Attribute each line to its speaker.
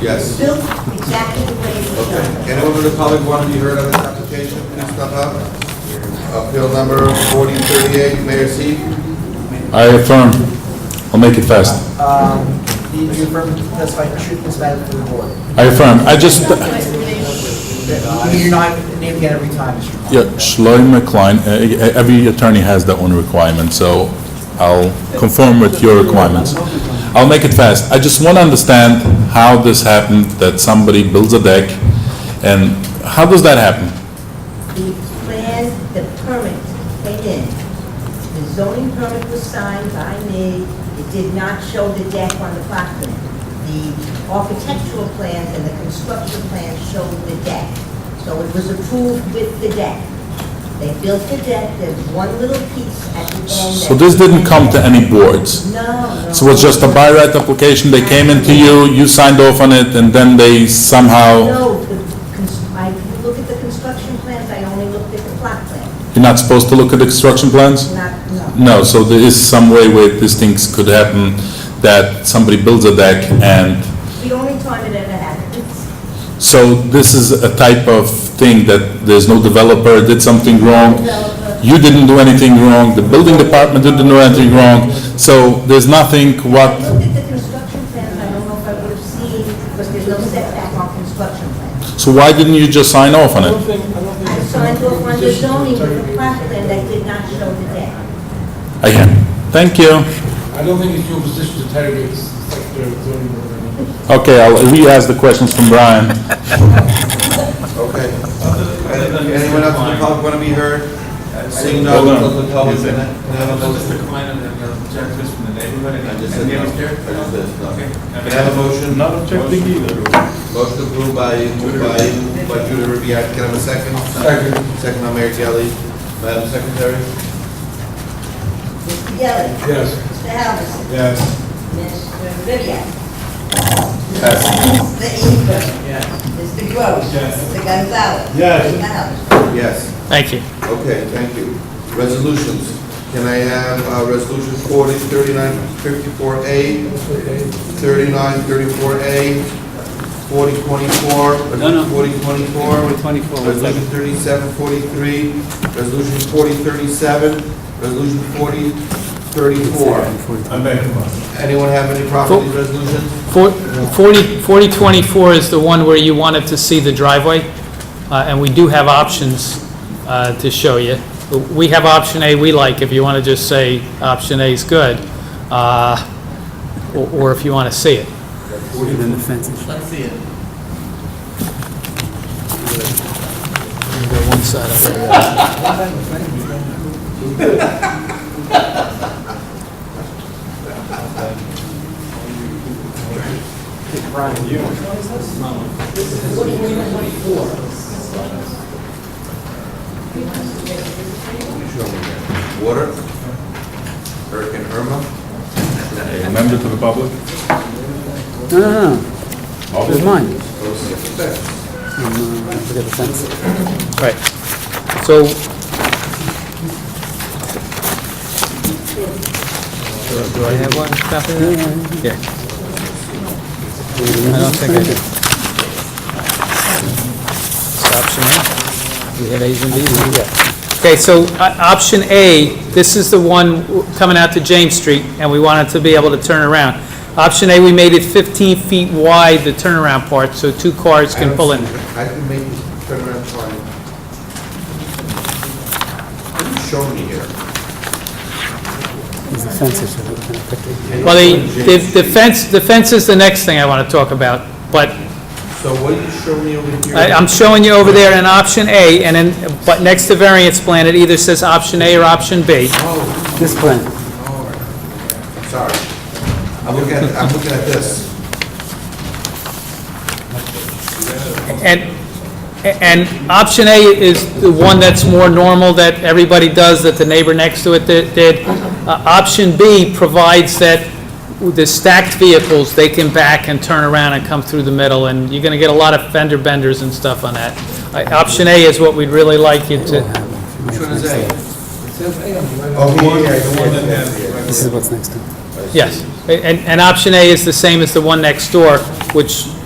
Speaker 1: Yes.
Speaker 2: built exactly the way it was
Speaker 1: Okay,
Speaker 2: done.
Speaker 1: anyone in the public want to be heard on this application, please step up. Appeal number 4038, Mayor Seat.
Speaker 3: I affirm. I'll make it fast.
Speaker 4: Um, Do you do you affirm to testify your truth in this matter before the board?
Speaker 3: I affirm. I just,
Speaker 4: You're not named again every time, Mr. Klein.
Speaker 3: yeah, Shloim McLean, uh, uh, every attorney has their own requirement, so I'll conform with your requirements. I'll make it fast. I just want to understand how this happened, that somebody builds a deck, and how does that happen?
Speaker 2: The plan, the permit came in. The zoning permit was signed by me. It did not show the deck on the plot plan. The architectural plans and the construction plans showed the deck. So it was approved with the deck. They built the deck, there's one little piece at the end.
Speaker 3: So
Speaker 2: that-
Speaker 3: this didn't come to any boards?
Speaker 2: No, no.
Speaker 3: So it's just a by right application, they came into you, you signed off on it, and then they somehow,
Speaker 2: No, the cons- I didn't look at the construction plans, I only looked at the plot plan,
Speaker 3: you're not supposed to look at the construction plans?
Speaker 2: not, no.
Speaker 3: No, so there is some way where these things could happen, that somebody builds a deck and,
Speaker 2: The only time it ever happens.
Speaker 3: so this is a type of thing that there's no developer did something wrong. You didn't do anything wrong, the building department didn't do anything wrong, so there's nothing
Speaker 2: I
Speaker 3: what,
Speaker 2: looked at the construction plans, I don't know if I would have seen, because there's no setback on construction plans.
Speaker 3: so why didn't you just sign off on it?
Speaker 2: I signed off on the zoning with the plot plan that did not show the deck.
Speaker 3: Again, thank you.
Speaker 5: I don't think it's your position to interrogate the Secretary of Zoning Board. I mean.
Speaker 3: Okay, I'll re-ask the questions from Brian.
Speaker 1: Okay. Anyone else in the public want to be heard? Seeing none,
Speaker 3: Hold on.
Speaker 1: close the public. Can I- can I have a
Speaker 6: Hello,
Speaker 1: motion?
Speaker 6: Mr. Klein, and then uh, Jack Fish from the neighborhood, and
Speaker 1: I just said
Speaker 6: and the
Speaker 1: no.
Speaker 6: other chair.
Speaker 1: I just said no.
Speaker 6: Okay.
Speaker 1: Can I have a motion?
Speaker 6: Not objecting either.
Speaker 1: Motion approved by, moved by, by Judah Ribbiad, can I have a second? Second. Second by Mayor Gelli. Madam Secretary?
Speaker 2: Mr. Gelli.
Speaker 5: Yes.
Speaker 2: Mr. Halverson.
Speaker 1: Yes.
Speaker 2: Mr. Ribbiat. Mr. Inger. Mr. Gross. Mr. Gonzalez.
Speaker 5: Yes.
Speaker 2: Mr. Halverson.
Speaker 1: Yes.
Speaker 7: Thank you.
Speaker 1: Okay, thank you. Resolutions. Can I have uh, Resolution 40, 39, 54A, 39, 34A, 40, 24,
Speaker 8: no.
Speaker 1: 40, 24,
Speaker 8: 24,
Speaker 1: Resolution 37, 43, Resolution 40, 37, Resolution 40, 34. Anyone have any problem with these resolutions?
Speaker 7: Four- 40 4024 is the one where you wanted to see the driveway, uh, and we do have options uh, to show you. We have option A we like, if you want to just say option A is good, uh, or or if you want to see it.
Speaker 8: Then the fence is-
Speaker 1: Water? Hurricane Irma?
Speaker 3: A member to the public?
Speaker 8: No, no, no. This is mine. Um, uh, I forget the fence.
Speaker 7: Right. So... Do I have one copy? Yeah. I don't think I do. It's option A. We have A's and B's, yeah. Okay, so uh, option A, this is the one w- coming out to James Street, and we wanted to be able to turn around. Option A, we made it 15 feet wide, the turnaround part, so two cars can pull in.
Speaker 1: I can make this turnaround time. What are you showing me here?
Speaker 8: There's the fence issue. that we can pick it.
Speaker 7: Well, the, the- the fence, the fence is the next thing I want to talk about, but
Speaker 1: So what are you showing me over here?
Speaker 7: I- I'm showing you over there an option A, and then, but next to variance plan, it either says option A or option B.
Speaker 1: Oh,
Speaker 8: This plan,
Speaker 1: sorry. I'm looking at, I'm looking at this.
Speaker 7: And, and option A is the one that's more normal that everybody does, that the neighbor next to it did- did. Uh, Option B provides that the stacked vehicles, they can back and turn around and come through the middle, and you're going to get a lot of fender benders and stuff on that. Uh, Option A is what we'd really like you to,
Speaker 1: Which one is A? Oh, here, yeah, the one that has.
Speaker 8: this is what's next to it.
Speaker 7: Yes, and, and option A is the same as the one next door, which